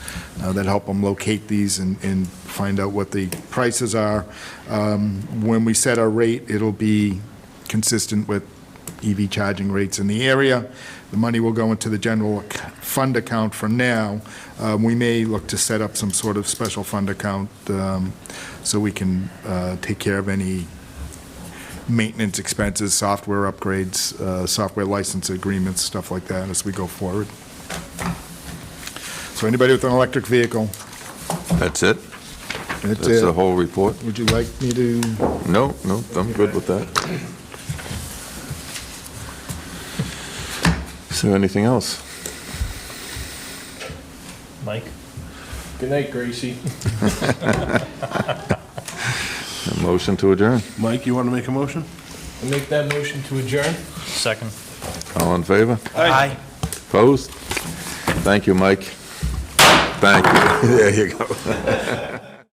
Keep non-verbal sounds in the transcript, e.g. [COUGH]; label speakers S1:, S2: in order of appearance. S1: uh, that help them locate these and, and find out what the prices are. Um, When we set our rate, it'll be consistent with EV charging rates in the area. The money will go into the general ac- fund account for now. Uh, We may look to set up some sort of special fund account um, so we can uh, take care of any maintenance expenses, software upgrades, uh, software license agreements, stuff like that as we go forward. So anybody with an electric vehicle,
S2: That's it?
S1: that's
S2: That's the
S1: it.
S2: whole report?
S1: Would you like me to?
S2: No, no, I'm good with that. Is there anything else?
S3: Mike?
S4: Good night, Gracie.
S2: A motion to adjourn?
S5: Mike, you want to make a motion?
S4: I make that motion to adjourn.
S3: Second.
S2: All in favor?
S3: Aye.
S2: [LAUGHS] Opposed? Thank you, Mike. Thank you. There you go.